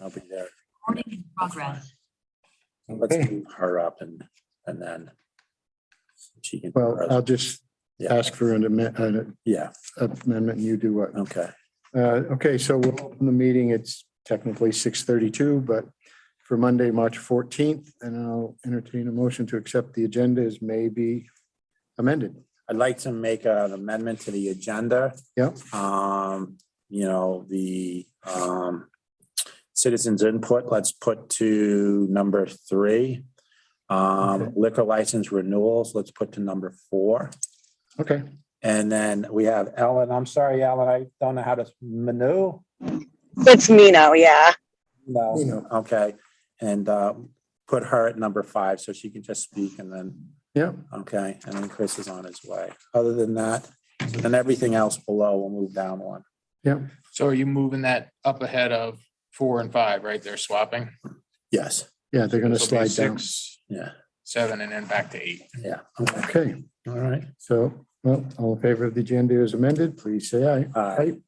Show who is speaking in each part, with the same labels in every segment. Speaker 1: I'll be there.
Speaker 2: Recording in progress.
Speaker 1: Let's
Speaker 3: Okay.
Speaker 1: move her up and, and then she can.
Speaker 3: Well, uh, I'll just
Speaker 1: Yeah,
Speaker 3: ask for an amendment, an
Speaker 1: yeah,
Speaker 3: amendment, and you do what?
Speaker 1: okay.
Speaker 3: Uh, Okay, so we'll open the meeting. It's technically six thirty-two, but for Monday, March fourteenth, and I'll entertain a motion to accept the agenda as may be amended.
Speaker 1: I'd like to make an amendment to the agenda.
Speaker 3: Yep.
Speaker 1: Um, you know, the, um, citizens input, let's put to number three.
Speaker 3: Okay.
Speaker 1: Um, liquor license renewals, let's put to number four.
Speaker 3: Okay,
Speaker 1: And then we have Ellen, I'm sorry, Ellen, I don't know how to menu.
Speaker 4: It's Mino, yeah.
Speaker 3: you
Speaker 1: No,
Speaker 3: know,
Speaker 1: okay, and, uh, put her at number five so she can just speak and then
Speaker 3: yeah,
Speaker 1: Okay, and then Chris is on his way. Other than that, so then everything else below will move down one.
Speaker 5: So are you moving that up ahead of four and five, right? They're swapping.
Speaker 1: Yes.
Speaker 3: yeah, they're gonna
Speaker 5: So it'll be
Speaker 3: slide down.
Speaker 5: six,
Speaker 1: Yeah,
Speaker 5: Seven and then back to eight.
Speaker 1: yeah. Okay,
Speaker 3: Okay,
Speaker 1: all right.
Speaker 3: so, well, all in favor of the agenda as amended, please say aye.
Speaker 1: All right.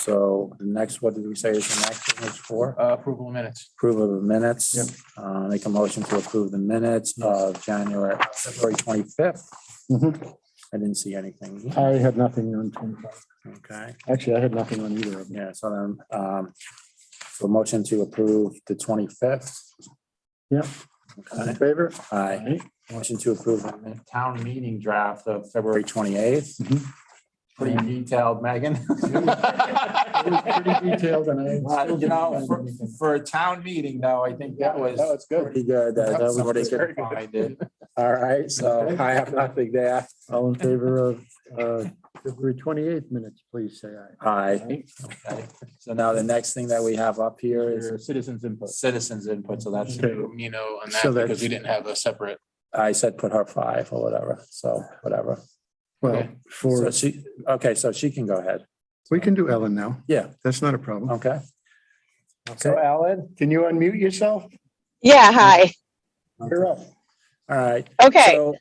Speaker 1: So the next, what did we say is the next one is for?
Speaker 5: Uh, Approval of minutes.
Speaker 1: Approval of the minutes.
Speaker 3: Yep.
Speaker 1: Uh, make a motion to approve the minutes of January, February twenty-fifth.
Speaker 3: Mhm.
Speaker 1: I didn't see anything.
Speaker 3: I had nothing on twenty-five.
Speaker 1: Okay,
Speaker 3: Actually, I had nothing on either of them.
Speaker 1: yeah, so then, um, so motion to approve the twenty-fifth.
Speaker 3: Yep. All
Speaker 1: Okay.
Speaker 3: in favor?
Speaker 1: Aye. Motion to approve the town meeting draft of February twenty-eighth.
Speaker 3: Mhm.
Speaker 1: Pretty detailed, Megan.
Speaker 3: It was pretty detailed and I.
Speaker 1: Uh, You know, for, for a town meeting though, I think that was.
Speaker 3: That was good.
Speaker 1: Pretty good. That was pretty good. All right, so I have nothing there.
Speaker 3: All in favor of uh, February twenty-eighth minutes, please say aye.
Speaker 1: Aye. Okay. So now the next thing that we have up here is
Speaker 5: Citizens input.
Speaker 1: citizens input. So that's,
Speaker 3: Okay.
Speaker 5: You know, on
Speaker 3: So
Speaker 5: that
Speaker 3: that's-
Speaker 5: because we didn't have a separate.
Speaker 1: I said put her five or whatever. So whatever.
Speaker 3: Well,
Speaker 5: Okay.
Speaker 3: for,
Speaker 1: So she, okay, so she can go ahead.
Speaker 3: we can do Ellen now.
Speaker 1: Yeah,
Speaker 3: That's not a problem.
Speaker 1: okay.
Speaker 3: So Ellen, can you unmute yourself?
Speaker 4: Yeah, hi.
Speaker 3: You're up.
Speaker 1: All right.
Speaker 4: Okay.
Speaker 1: So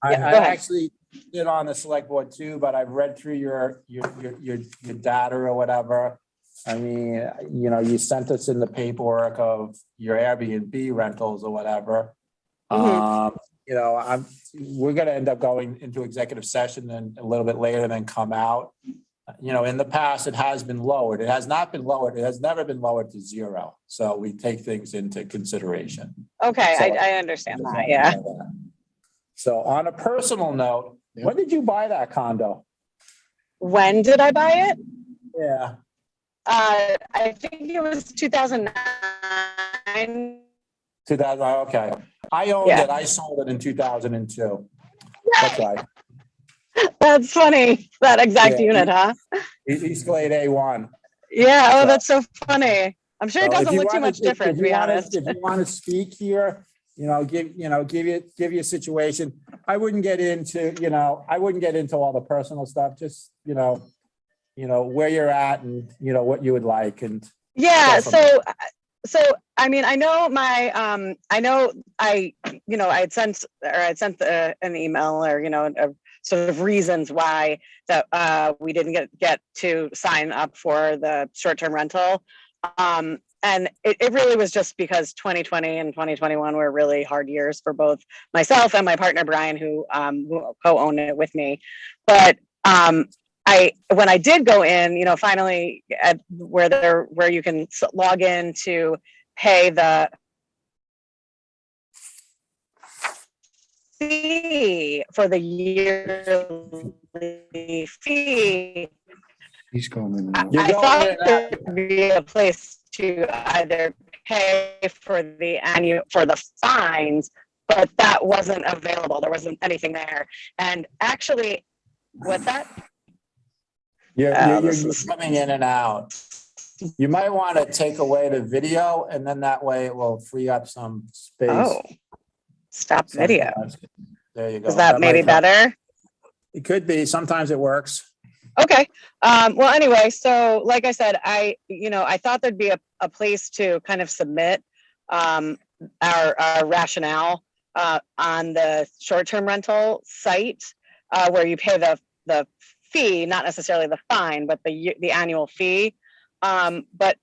Speaker 1: I,
Speaker 4: Yeah,
Speaker 1: I
Speaker 4: go ahead.
Speaker 1: actually did on the select board too, but I've read through your, your, your, your, your data or whatever. I mean, you know, you sent us in the paperwork of your Airbnb rentals or whatever.
Speaker 4: Mhm.
Speaker 1: Um, you know, I'm, we're gonna end up going into executive session and a little bit later and then come out. You know, in the past, it has been lowered. It has not been lowered. It has never been lowered to zero. So we take things into consideration.
Speaker 4: Okay,
Speaker 1: So-
Speaker 4: I, I understand that, yeah.
Speaker 1: So on a personal note,
Speaker 3: Yeah.
Speaker 1: when did you buy that condo?
Speaker 4: When did I buy it?
Speaker 1: Yeah.
Speaker 4: Uh, I think it was two thousand nine.
Speaker 1: Two thousand, oh, okay. I owned
Speaker 4: Yeah.
Speaker 1: it. I sold it in two thousand and two. That's right.
Speaker 4: That's funny, that exact
Speaker 1: Yeah.
Speaker 4: unit, huh?
Speaker 1: East E, East Glade A one.
Speaker 4: Yeah,
Speaker 1: So-
Speaker 4: oh, that's so funny. I'm sure it doesn't look too much different, to be honest.
Speaker 1: If you want to speak here, you know, give, you know, give you, give you a situation. I wouldn't get into, you know, I wouldn't get into all the personal stuff, just, you know, you know, where you're at and, you know, what you would like and,
Speaker 4: Yeah,
Speaker 1: Go from there.
Speaker 4: so, uh, so, I mean, I know my, um, I know I, you know, I had sent, or I had sent the, an email or, you know, of sort of reasons why that, uh, we didn't get, get to sign up for the short-term rental. Um, and it, it really was just because twenty twenty and twenty twenty-one were really hard years for both myself and my partner Brian, who, um, who co-owned it with me. But, um, I when I did go in, you know, finally at where there where you can s- log in to pay the fee for the yearly fee.
Speaker 3: He's going in.
Speaker 4: I
Speaker 3: now.
Speaker 4: I
Speaker 1: You're going
Speaker 4: thought
Speaker 1: in
Speaker 4: there would be a place to either pay for the annual, for the fines, but that wasn't available. There wasn't anything there. And actually, what's that?
Speaker 1: Yeah,
Speaker 4: Uh,
Speaker 1: you're,
Speaker 4: this
Speaker 1: you're
Speaker 4: is-
Speaker 1: coming in and out. You might want to take away the video and then that way it will free up some space.
Speaker 4: Oh, stop video.
Speaker 1: Sometimes. There you go.
Speaker 4: Is that maybe
Speaker 1: might help.
Speaker 4: better?
Speaker 1: It could be. Sometimes it works.
Speaker 4: Okay. Um, well, anyway, so like I said, I, you know, I thought there'd be a, a place to kind of submit um, our, our rationale uh, on the short-term rental site uh, where you pay the, the fee, not necessarily the fine, but the, ye- the annual fee. Um, but